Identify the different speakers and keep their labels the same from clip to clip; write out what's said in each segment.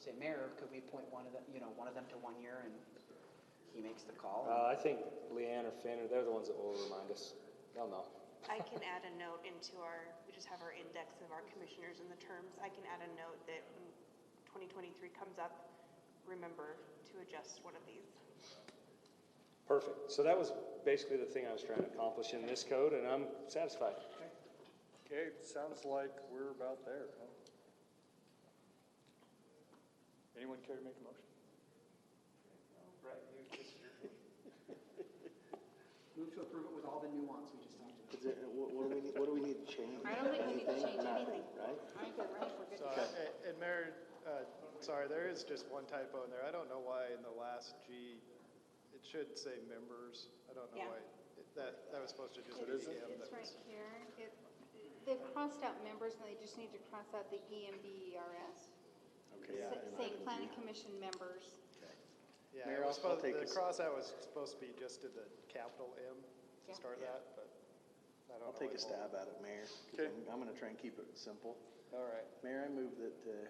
Speaker 1: say, Mayor, could we appoint one of them, you know, one of them to one year, and he makes the call?
Speaker 2: Uh, I think Leanne or Finn, are- they're the ones that will remind us. They'll know.
Speaker 3: I can add a note into our, we just have our index of our commissioners and the terms. I can add a note that when 2023 comes up, remember to adjust one of these.
Speaker 2: Perfect. So that was basically the thing I was trying to accomplish in this code, and I'm satisfied.
Speaker 4: Okay, sounds like we're about there, huh? Anyone care to make a motion?
Speaker 1: Move to approve it with all the nuance we just talked about.
Speaker 5: Is it, what, what do we need, what do we need to change?
Speaker 6: I don't think we need to change anything.
Speaker 5: Right?
Speaker 6: I think you're right, we're good to
Speaker 7: So,
Speaker 6: go.
Speaker 7: uh, And Mayor, uh, sorry, there is just one typo in there. I don't know why in the last G, it should say members. I don't
Speaker 3: Yeah.
Speaker 7: know why. It- That, that was supposed to just be
Speaker 6: It's
Speaker 7: EM.
Speaker 6: it's
Speaker 7: That
Speaker 6: right
Speaker 7: was-
Speaker 6: here. It- They've crossed out members, and they just need to cross out the E EMBERS.
Speaker 5: Okay, yeah,
Speaker 6: S-
Speaker 5: and
Speaker 6: Say
Speaker 5: item
Speaker 6: planning
Speaker 5: G.
Speaker 6: commission members.
Speaker 7: Yeah,
Speaker 5: Mayor,
Speaker 7: it was
Speaker 5: I'll- I'll
Speaker 7: supposed,
Speaker 5: take
Speaker 7: the
Speaker 5: this.
Speaker 7: cross out was supposed to be just to the capital M
Speaker 6: Yeah.
Speaker 7: to start that, but I don't know.
Speaker 5: I'll take
Speaker 7: why-
Speaker 5: a stab at it, Mayor. 'cause
Speaker 7: Okay.
Speaker 5: I'm, I'm gonna try and keep it simple.
Speaker 7: All right.
Speaker 5: Mayor, I move that, uh,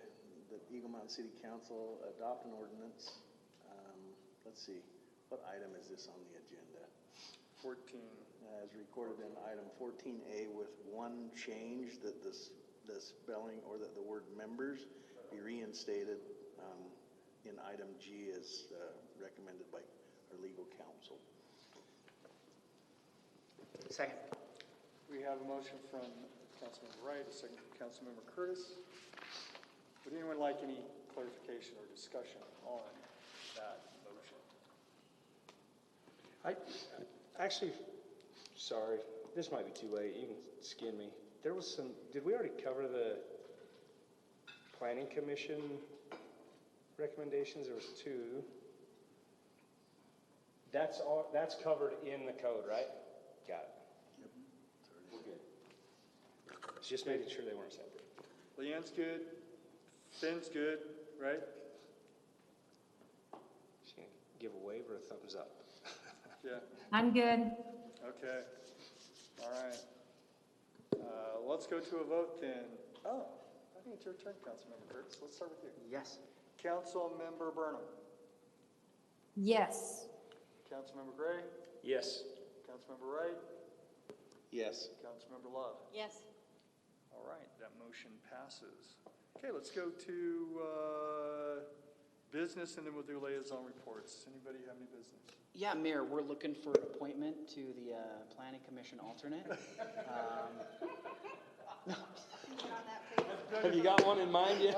Speaker 5: that Eagle Mountain City Council adopt an ordinance. Um, let's see, what item is this on the agenda? Uh,
Speaker 4: 14.
Speaker 5: As recorded in item fourteen A with one change that this, the spelling or that the word members be reinstated, um, in item G as, uh, recommended by our legal counsel.
Speaker 1: Second.
Speaker 4: We have a motion from Councilmember Wright, a second from Councilmember Curtis. Would anyone like any clarification or discussion on that motion?
Speaker 2: I, actually, sorry, this might be too late. You can skin me. There was some, did we already cover the planning commission recommendations? There was two. That's all, that's covered in the code, right? Got it. We're good. It's Just making sure they weren't separate.
Speaker 4: Leanne's good, Finn's good, right?
Speaker 2: She can give a wave or a thumbs up.
Speaker 4: Yeah,
Speaker 8: I'm good.
Speaker 4: okay, all right. Uh, Let's go to a vote then. Oh, I think it's your turn, Councilmember Curtis. Let's start with you.
Speaker 1: Yes.
Speaker 4: Councilmember Burnham,
Speaker 8: Yes.
Speaker 4: Councilmember Gray,
Speaker 2: Yes.
Speaker 4: Councilmember Wright,
Speaker 5: Yes.
Speaker 4: Councilmember Love.
Speaker 6: Yes.
Speaker 4: All right, that motion passes. Okay, let's go to uh, business, and then we'll do liaison reports. Anybody have any business?
Speaker 1: Yeah, Mayor, we're looking for an appointment to the uh, Planning Commission alternate. Um,
Speaker 2: Have you got one in mind yet?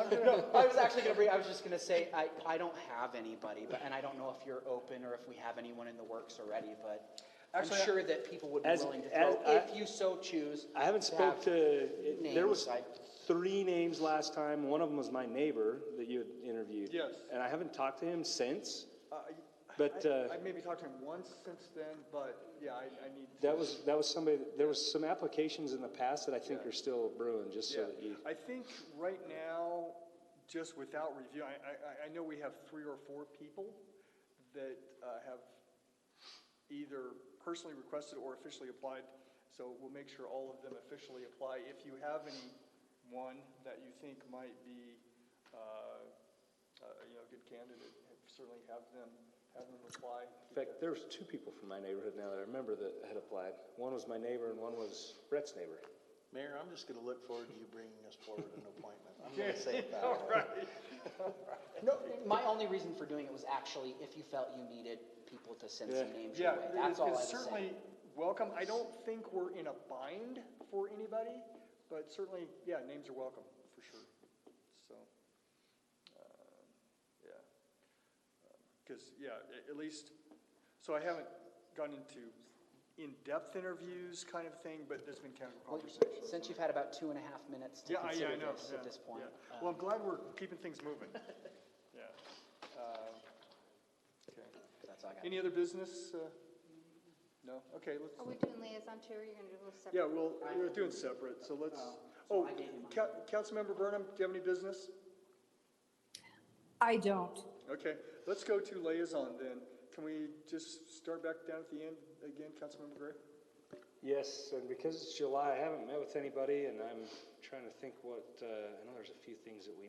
Speaker 1: I was actually gonna bring, I was just gonna say, I, I don't have anybody, but, and I don't know if you're open or if we have anyone in the works already, but I'm
Speaker 2: Actually, I-
Speaker 1: sure that people would be
Speaker 2: As-
Speaker 1: willing to
Speaker 2: as
Speaker 1: throw,
Speaker 2: I-
Speaker 1: if you so choose.
Speaker 2: I haven't spoke
Speaker 1: have
Speaker 2: to, it- there was
Speaker 1: names, I-
Speaker 2: three names last time. One of them was my neighbor that you had interviewed.
Speaker 4: Yes.
Speaker 2: And I haven't talked to him since.
Speaker 4: Uh,
Speaker 2: But,
Speaker 4: I-
Speaker 2: uh,
Speaker 4: I maybe talked to him once since then, but yeah, I I need. to-
Speaker 2: That was, that was somebody, that- there was some applications in the past that I think
Speaker 4: Yeah.
Speaker 2: are still brewing, just so
Speaker 4: Yeah,
Speaker 2: that you.
Speaker 4: I think right now, just without review, I, I- I, I know we have three or four people that uh, have either personally requested or officially applied, so we'll make sure all of them officially apply. If you have any one that you think might be, uh, uh, you know, a good candidate, certainly have them, have them apply.
Speaker 2: In fact, there was two people from my neighborhood now that I remember that had applied. One was my neighbor and one was Brett's neighbor.
Speaker 5: Mayor, I'm just gonna look forward to you bringing us forward an appointment. I'm gonna say it that way.
Speaker 1: No, my only reason for doing it was actually if you felt you needed people to send some
Speaker 2: Yeah.
Speaker 1: names your way.
Speaker 4: Yeah,
Speaker 1: That's
Speaker 4: it's
Speaker 1: all I
Speaker 4: it's
Speaker 1: was saying.
Speaker 4: certainly welcome. I don't think we're in a bind for anybody, but certainly, yeah, names are welcome, for sure. So, um, yeah. Because, yeah, a- at least, so I haven't gone into in-depth interviews kind of thing, but there's been casual
Speaker 1: Well,
Speaker 4: conversations.
Speaker 1: Since you've had about two and a half minutes to
Speaker 4: Yeah, I- yeah, I
Speaker 1: consider
Speaker 4: know.
Speaker 1: this
Speaker 4: yeah,
Speaker 1: at this point.
Speaker 4: yeah.
Speaker 1: uh,
Speaker 4: Well, I'm glad we're keeping things moving. Yeah. Um, Okay.
Speaker 1: That's all I got.
Speaker 4: Any other business? uh, No? Okay, let's.
Speaker 6: Are we doing liaison too, or you're going to do a separate?
Speaker 4: Yeah, well, we're doing separate, so let's, oh,
Speaker 1: I gave you mine.
Speaker 4: Ca- Councilmember Burnham, do you have any business?
Speaker 8: I don't.
Speaker 4: Okay, let's go to liaison then. Can we just start back down at the end again, Councilmember Gray?
Speaker 2: Yes, and because it's July, I haven't met with anybody and I'm trying to think what, uh, I know there's a few things that we